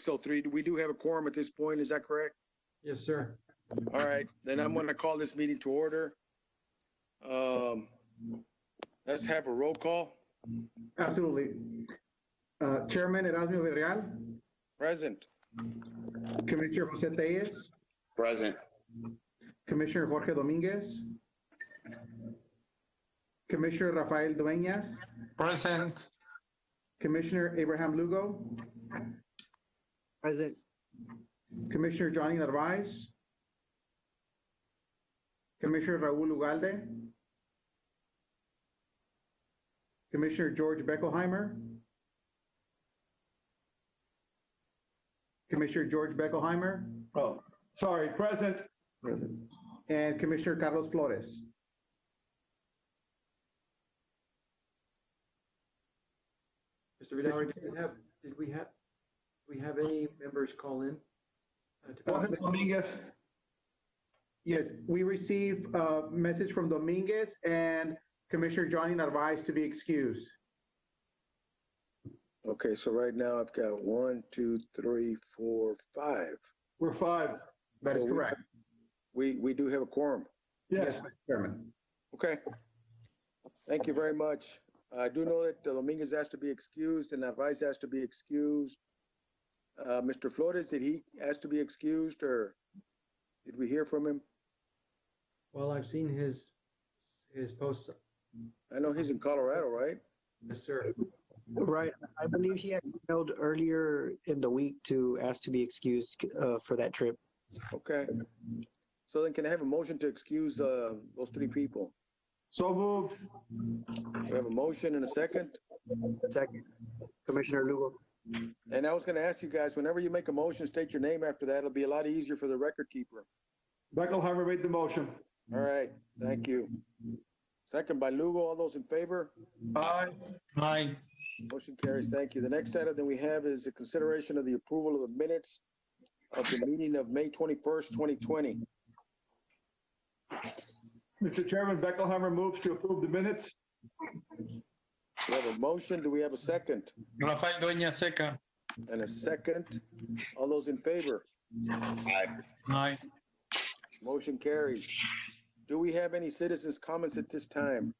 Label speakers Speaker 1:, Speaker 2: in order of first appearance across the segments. Speaker 1: 603, we do have a quorum at this point, is that correct?
Speaker 2: Yes, sir.
Speaker 1: All right, then I'm going to call this meeting to order. Um, Let's have a roll call.
Speaker 3: Absolutely. Uh, Chairman Erasmo Villarreal,
Speaker 1: Present.
Speaker 3: Commissioner Jose Tellez,
Speaker 4: Present.
Speaker 3: Commissioner Jorge Dominguez, Commissioner Rafael Dueñas,
Speaker 2: Present.
Speaker 3: Commissioner Abraham Lugo,
Speaker 5: Present.
Speaker 3: Commissioner Johnny Narvaez, Commissioner Raul Ugalde, Commissioner George Beckelheimer, Commissioner George Beckelheimer,
Speaker 4: Oh, sorry, present.
Speaker 3: and Commissioner Carlos Flores.
Speaker 2: Mr. Vidal, did we have, did we have, we have any members call in? uh, to-
Speaker 4: Wasn't Dominguez?
Speaker 3: Yes, we received a message from Dominguez and Commissioner Johnny Narvaez to be excused.
Speaker 1: Okay, so right now I've got one, two, three, four, five.
Speaker 4: We're five.
Speaker 3: That is
Speaker 4: Oh,
Speaker 1: Well, we-
Speaker 3: correct.
Speaker 1: We, we do have a quorum.
Speaker 4: Yes.
Speaker 3: Mr. Chairman.
Speaker 1: Okay. Thank you very much. I do know that Dominguez has to be excused and Narvaez has to be excused. Uh, Mr. Flores, did he ask to be excused or did we hear from him?
Speaker 2: Well, I've seen his, his posts.
Speaker 1: I know he's in Colorado, right?
Speaker 2: Yes, sir.
Speaker 5: Right. I believe he had emailed earlier in the week to ask to be excused uh, for that trip.
Speaker 1: Okay. So then can I have a motion to excuse, uh, those three people?
Speaker 4: So moved.
Speaker 1: Do I have a motion and a second?
Speaker 5: Second, Commissioner Lugo.
Speaker 1: And I was gonna ask you guys, whenever you make a motion, state your name after that. It'll be a lot easier for the record keeper.
Speaker 4: Beckelheimer made the motion.
Speaker 1: All right, thank you. Second by Lugo, all those in favor?
Speaker 4: Aye.
Speaker 2: Aye.
Speaker 1: Motion carries. Thank you. The next item that we have is the consideration of the approval of the minutes of the meeting of May twenty-first, twenty twenty.
Speaker 4: Mr. Chairman, Beckelheimer moves to approve the minutes.
Speaker 1: We have a motion. Do we have a second?
Speaker 6: Rafael Dueña Seca.
Speaker 1: And a second? All those in favor?
Speaker 6: Aye.
Speaker 1: Motion carries. Do we have any citizens' comments at this time?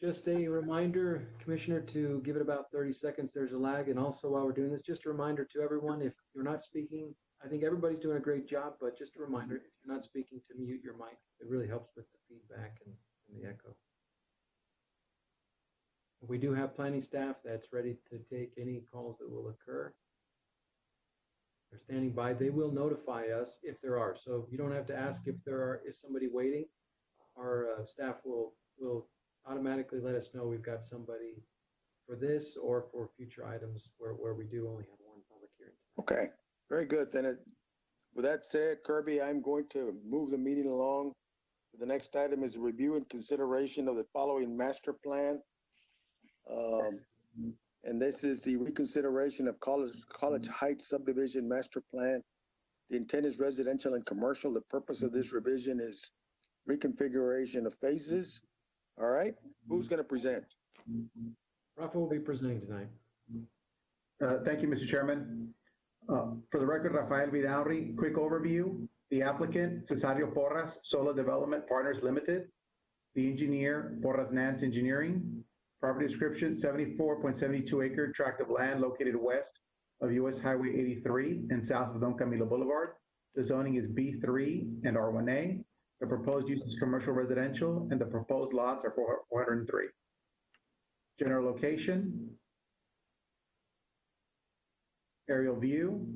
Speaker 2: Just a reminder, Commissioner, to give it about 30 seconds. There's a lag. And also while we're doing this, just a reminder to everyone, if you're not speaking, I think everybody's doing a great job, but just a reminder, if you're not speaking, to mute your mic. It really helps with the feedback and and the echo. We do have planning staff that's ready to take any calls that will occur. They're standing by. They will notify us if there are. So you don't have to ask if there are, is somebody waiting. Our uh, staff will, will automatically let us know we've got somebody for this or for future items where, where we do only have one public hearing.
Speaker 1: Okay, very good. Then it, with that said, Kirby, I'm going to move the meeting along. The next item is review and consideration of the following master plan. Um, and this is the reconsideration of College, College Heights subdivision master plan. The intent is residential and commercial. The purpose of this revision is reconfiguration of phases. All right, who's going to present?
Speaker 2: Rafa will be presenting tonight.
Speaker 3: Uh, Thank you, Mr. Chairman. Uh, For the record, Rafael Vidaurri, quick overview. The applicant, Cesario Porras, Solar Development Partners Limited. The engineer, Porras Nance Engineering. Property description, 74.72 acre tract of land located west of US Highway 83 and south of Don Camilo Boulevard. The zoning is B3 and R1A. The proposed use is commercial residential, and the proposed lots are 403. General location, aerial view,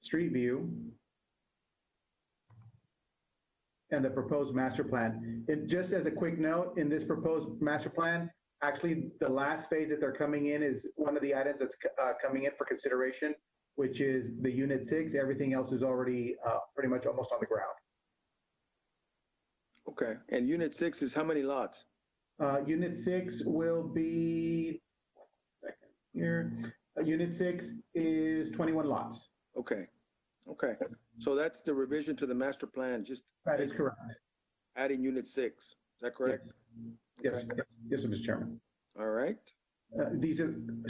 Speaker 3: street view, and the proposed master plan. And just as a quick note, in this proposed master plan, actually, the last phase that they're coming in is one of the items that's uh, coming in for consideration, which is the unit six. Everything else is already uh, pretty much almost on the ground.
Speaker 1: Okay, and unit six is how many lots?
Speaker 3: Uh, Unit six will be, second here, Uh, unit six is 21 lots.
Speaker 1: Okay, okay. So that's the revision to the master plan, just
Speaker 3: That is correct.
Speaker 1: adding unit six. Is that correct?
Speaker 3: Yes,
Speaker 1: Okay.
Speaker 3: yes, Mr. Chairman.
Speaker 1: All right.
Speaker 3: uh, these are